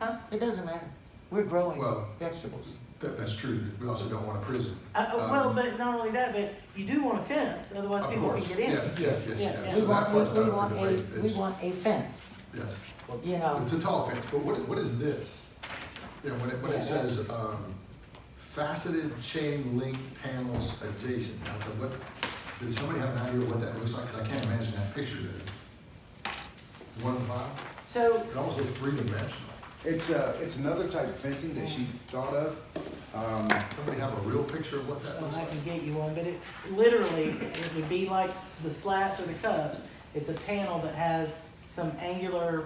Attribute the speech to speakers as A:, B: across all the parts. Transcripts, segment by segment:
A: Huh?
B: It doesn't matter. We're growing
C: Well-
B: vegetables.
C: That, that's true, we also don't want a prison.
A: Uh, uh, well,
C: Um,
A: but not only that, but you do want a fence, otherwise
C: Of
A: people can
C: course.
A: get in.
C: Yes, yes, yes,
A: Yeah,
C: yes.
A: yeah.
B: We
C: So that
B: want, we,
C: part's done
B: we
C: for
B: want
C: the
B: a,
C: way
B: we
C: it's-
B: want a fence,
C: Yes,
B: you know.
C: it's a tall fence, but what is, what is this? You know, when it, when
B: Yeah.
C: it says, um, faceted chain link panels adjacent, now, but what, did somebody have an idea what that looks like? 'Cause I can't imagine that picture there. The One on the bottom,
A: So,
C: it almost looks three dimensional.
D: It's, uh, it's another type of fencing that she thought of. Um,
C: Somebody have a real picture of what that
A: so
C: looks
A: I
C: like?
A: can get you one, but it, literally, it would be like s- the slats or the cups. It's a panel that has some angular,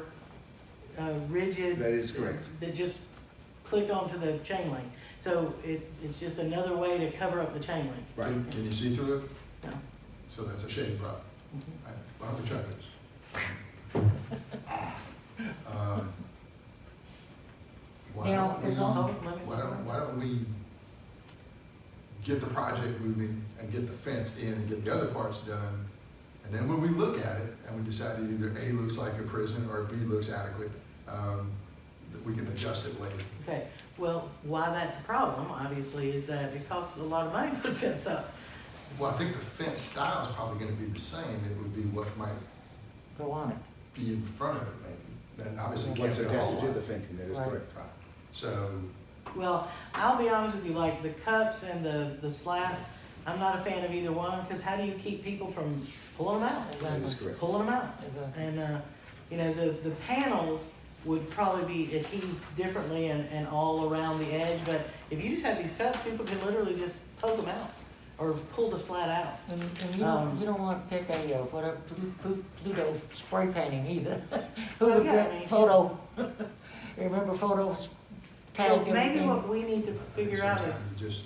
A: uh, rigid.
D: That is correct.
A: That just click onto the chain link. So it, it's just another way to cover up the chain link.
D: Right.
C: Can- Can you see through it?
A: No.
C: So that's a shade problem.
A: Mhm.
C: Right, Why don't we try this? Um, Why
B: Now,
C: don't we,
B: is all-
C: why don't, why don't we get the project moving and get the fence in and get the other parts done? And then when we look at it and we decide that either A looks like a prison or B looks adequate, um, that we can adjust it later.
A: Okay, well, why that's a problem, obviously, is that it costs a lot of money to put a fence up.
C: Well, I think the fence style is probably gonna be the same. It would be what might
B: Go on it.
C: be in front of it maybe. Then obviously can't
D: Once
C: be a whole
D: attached to
C: lot.
D: the fencing, that is
B: Right.
D: correct.
C: Right. So,
A: Well, I'll be honest with you, like the cups and the, the slats, I'm not a fan of either one, because how do you keep people from pulling them out?
D: That is
B: Exactly.
D: correct.
A: Pulling them out.
B: Exactly.
A: And, uh, you know, the, the panels would probably be adhesed differently and, and all around the edge, but if you just have these cups, people can literally just poke them out or pull the slat out.
B: And, and you don't,
A: Um,
B: you don't want to pick a, uh, what a Plu- Plu- Pluto spray painting either. Who
A: Well,
B: was
A: yeah, I
B: that
A: mean-
B: photo? Remember photos
A: So
B: tagged
A: maybe what
B: everything?
A: we need to
C: I think
A: figure out is,
C: sometimes you Just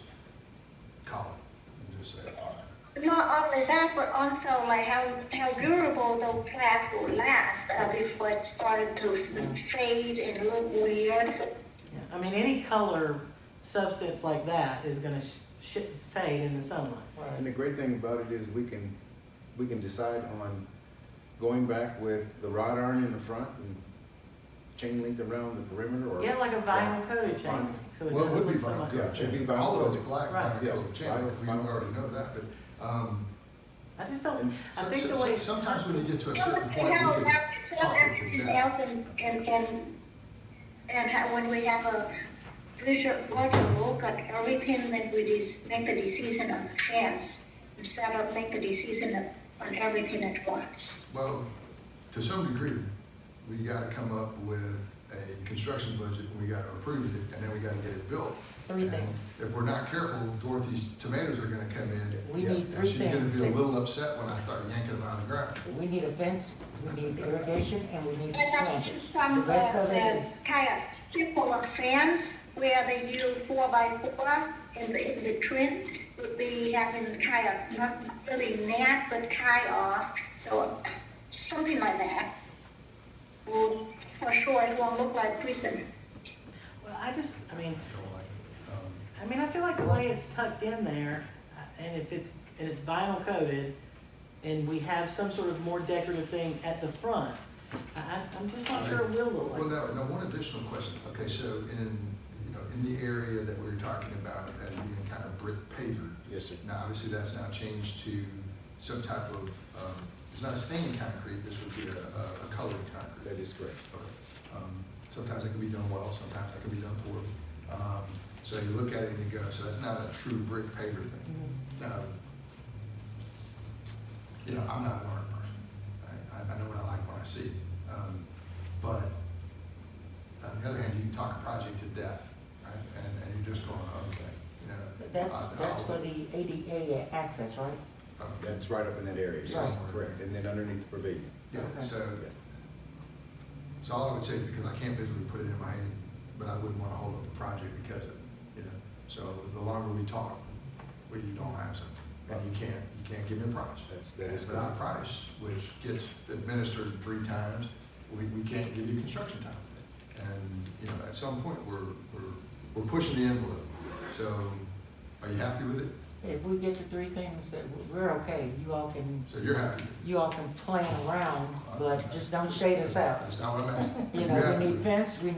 C: call it and just say, all right.
E: Not only that, but also like how, how durable those plants will last uh, before it started to fade and look weird.
A: Yeah, I mean, any color substance like that is gonna sh- sh- fade in the sunlight.
D: And the great thing about it is we can, we can decide on going back with the rod iron in the front and chain link around the perimeter or.
A: Yeah, like a vinyl coated chain.
D: Vinyl.
A: link, so it
C: Well, it
A: doesn't
C: would be
A: look so
C: vinyl
A: much-
D: Yeah,
C: coated
D: it'd be
C: chain.
D: vinyl
C: All of it's
D: coated.
C: black
A: Right.
C: vinyl
D: Yeah,
C: coated chain.
D: vinyl-
C: We
D: vinyl.
C: already know that, but, um,
A: I just don't,
D: And
A: I
C: so-
A: think
C: so-
A: the
C: so-
A: way. it's
C: sometimes when you get to a
E: So
C: certain
E: let's see
C: point, we
E: how
C: can
E: about
C: talk it to
E: everything
C: that.
E: else and, and, and, and how, when we have a visual, larger look at everything that we de- make the decision on plants instead of make the decision on everything at once.
C: Well, to some degree, we gotta come up with a construction budget, and we gotta approve it, and then we gotta get it built.
B: Three
C: And
B: things.
C: If we're not careful, Dorothy's tomatoes are gonna come in,
B: We
D: Yeah,
B: need
C: and
B: three
C: she's gonna
B: things.
C: be a little upset when I start yanking them out of the ground.
B: We need a fence, we need irrigation, and we need
E: And that's
B: planters. The
E: just some, uh,
B: rest of it
E: uh,
B: is,
E: kind of simple fans where they use four by four in the, in the trim would be having kind of, not really net, but kind of, so something like that. Well, for sure, it won't look like prison.
A: Well, I just, I mean,
C: Don't like it. Um,
A: I mean, I feel like the way it's tucked in there, uh, and if it's, and it's vinyl coated, and we have some sort of more decorative thing at the front, I, I- I'm just not sure it will look like.
C: Well, now, now, one additional question, okay, so in, you know, in the area that we were talking about as being kind of brick paver,
D: Yes, sir.
C: now, obviously, that's now changed to some type of, um, it's not a stained concrete, this would be a, a a colored concrete.
D: That is correct.
C: Okay. Um, Sometimes it can be done well, sometimes it can be done poorly. Um, So you look at it and you go, so that's not a true brick paver thing.
B: mm,
C: Um, You know, I'm not a learner person. I, I- I know what I like when I see it. Um, But on the other hand, you can talk a project to death, right? And, and you're just going, okay, you know.
B: but that's,
C: I-
B: that's
C: I'll-
B: for the ADA access, right?
C: um,
D: That's right up in that area, yes,
C: Right.
D: correct. And then underneath the pavilion.
C: Yeah, so,
D: Yeah.
C: so all I would say is because I can't visually put it in my head, but I wouldn't want to hold up the project because of, you know. So the longer we talk, we don't have something, and you can't, you can't give me a price.
D: That's- that is-
C: And Without a price, which gets administered three times, we, we can't give you construction time. And, you know, at some point, we're, we're, we're pushing the envelope. So are you happy with it?
B: If we get the three things, that we're okay, you all can,
C: So you're happy?
B: you all can play around, but just don't shade us out.
C: That's not what I'm asking.
B: You
C: You're
B: know,
C: happy
B: we
C: with
B: need
C: it?
B: fence, we